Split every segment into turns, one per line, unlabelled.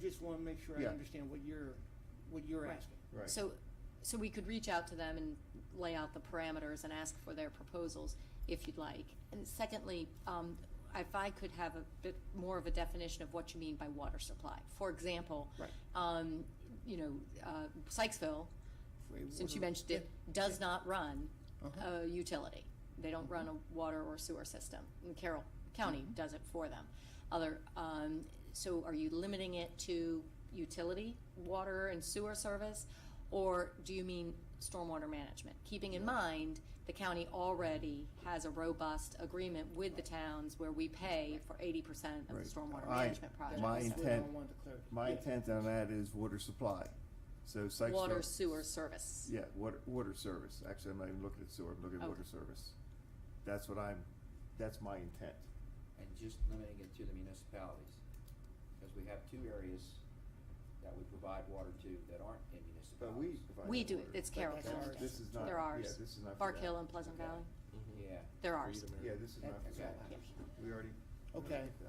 just wanna make sure I
Yeah.
understand what you're, what you're
Right.
asking.
Right.
So, so we could reach out to them and lay out the parameters and ask for their proposals if you'd like. And secondly, um, if I could have a bit more of a definition of what you mean by water supply. For example,
Right.
um, you know, uh, Sykesville,
For a
since
water-
you mentioned it,
Yeah.
does not uh, run
Uh-huh.
a utility. They don't run
Uh-huh.
a water or sewer system. And Carroll County does it for them. Other, um, so are you limiting it to utility, water and sewer service? Or do you mean stormwater management? Keeping in mind, the county already has a robust agreement with the towns where we pay for eighty percent of the
Right.
stormwater
I-
management
That's
projects.
my
what I
intent-
wanted to clarify.
My
Yeah.
intent on that is water supply. So Sykesville.
Water sewer service.
Yeah, water, water service. Actually, I'm not even looking at sewer, I'm looking at
Okay.
water service. That's what I'm, that's my intent.
and just limiting it to the municipalities. Because we have two areas that we provide water to that aren't
But we.
in municipalities.
provide
We
that
do it.
water.
It's
But
Carroll
that's
County.
ours. This is not,
They're
yeah,
ours.
this is not. for
Bark
that.
Hill and Pleasant Valley,
Yeah,
they're ours.
Yeah, this is not. for
Okay.
that.
Yeah.
We already.
Okay.
Yeah.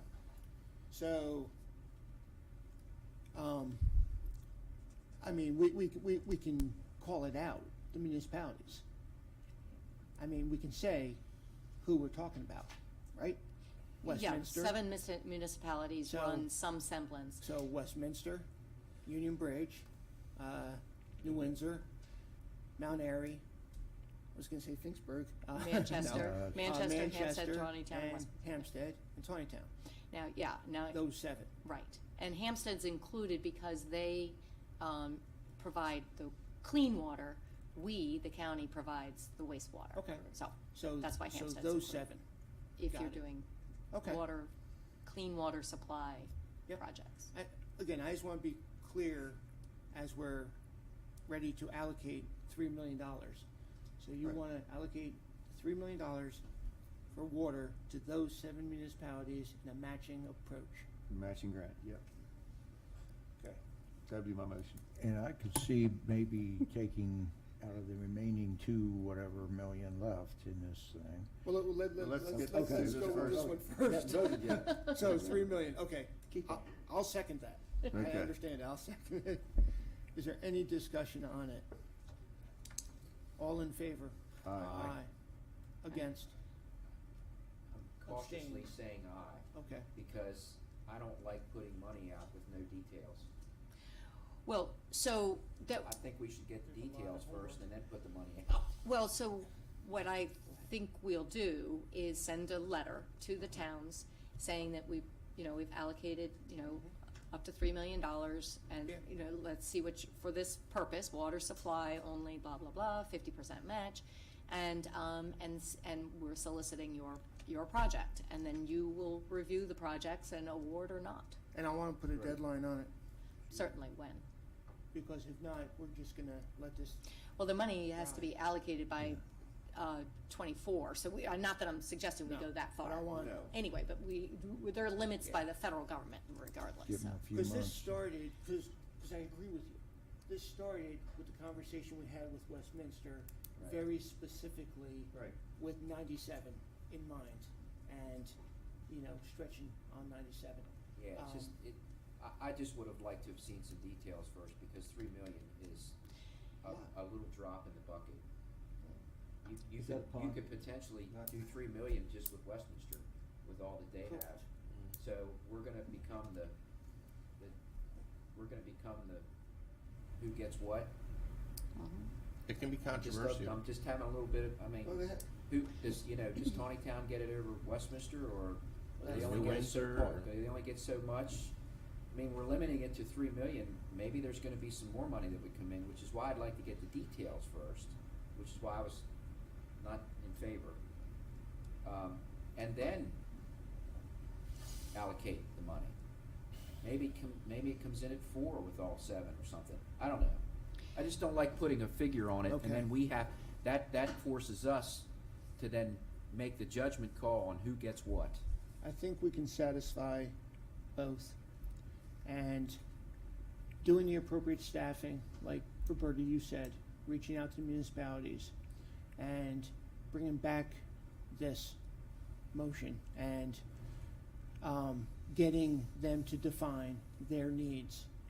So, um, I mean, we, we, we, we can call it out, the municipalities. I mean, we can say who we're talking about, right? Westminster.
Yeah, seven mis- municipalities
So-
run some semblance.
So Westminster, Union Bridge, uh, New Windsor, Mount Airy, I was gonna say Finksburg. uh, no.
Manchester,
Uh,
Manchester, Hampstead, Tawnytown,
and
West-
Hampstead and Tawnytown,
Now, yeah, now,
those seven.
right. And Hampstead's included because they um, provide the clean water. We, the county, provides the wastewater.
Okay.
So
So,
That's why
so
Hampstead's
those
included.
seven.
if
Got
you're
it.
doing
Okay.
water, clean water supply
Yep.
projects.
I, again, I just want to be clear as we're ready to allocate three million dollars. So you
Right.
want to allocate three million dollars for water to those seven municipalities in a matching approach.
Matching grant, yep.
Okay.
That'd be my motion.
And I could see maybe taking out of the remaining two, whatever million left in this thing.
Well, let,
But Let's get,
let's
let's
just
do
go with
this
this
first.
one
Not voted yet.
So three million, okay. I'll, I'll second that. I
Okay.
understand, I'll second it. Is there any discussion on it? All in favor?
Aye. Aye.
Against?
I'm cautiously saying aye,
Okay.
because I don't like putting money out with no details.
Well, so that,
I think we should get the details first and then put the money out.
Well, so what I think we'll do is send a letter to the towns saying that we, you know, we've allocated, you know, up to three million dollars and,
Yeah.
you know, let's see which, for this purpose, water supply only, blah, blah, blah, fifty percent match. And, um, and, s- and we're soliciting your, your project. And then you will review the projects and award or not,
And I want to put a
Right.
deadline on it.
certainly when.
because if not, we're just gonna let this,
Well, the money has to be allocated by, uh, twenty-four, so we, uh, not that I'm suggesting we
No,
go that
but
far.
I want,
No.
anyway, but we, there are limits by the federal government regardless,
Give
so.
them a few
because this
months.
started, because, because I agree with you. This started with the conversation we had with Westminster,
Right.
very specifically
Right.
with ninety-seven in mind, and, you know, stretching on ninety-seven.
Yeah, it's just, it, I, I just would have liked to have seen some details first, because three million is a, a little drop in the bucket. You, you
Is
could,
that
you
pond?
could potentially
Not-
do three million just with Westminster, with all that they
Correct.
have. So we're gonna become the, the, we're gonna become the, who gets what?
Mm-hmm.
It can be
Just,
controversial.
I'm just having a little bit of, I mean,
Well, that-
who, does, you know, does Tawny Town get it over Westminster,
Well,
or they
that's-
only
New
get so
Windsor,
part-
or-
they only get so much? I mean, we're limiting it to three million, maybe there's gonna be some more money that would come in, which is why I'd like to get the details first, which is why I was not in favor. Um, and then allocate the money. Maybe it com- maybe it comes in at four with all seven or something, I don't know. I just don't like putting a figure on it, and
Okay.
then we have, that, that forces us to then make the judgment call on who gets what.
I think we can satisfy both. And doing the appropriate staffing, like Roberta, you said, reaching out to municipalities and bringing back this motion and, um, getting them to define their needs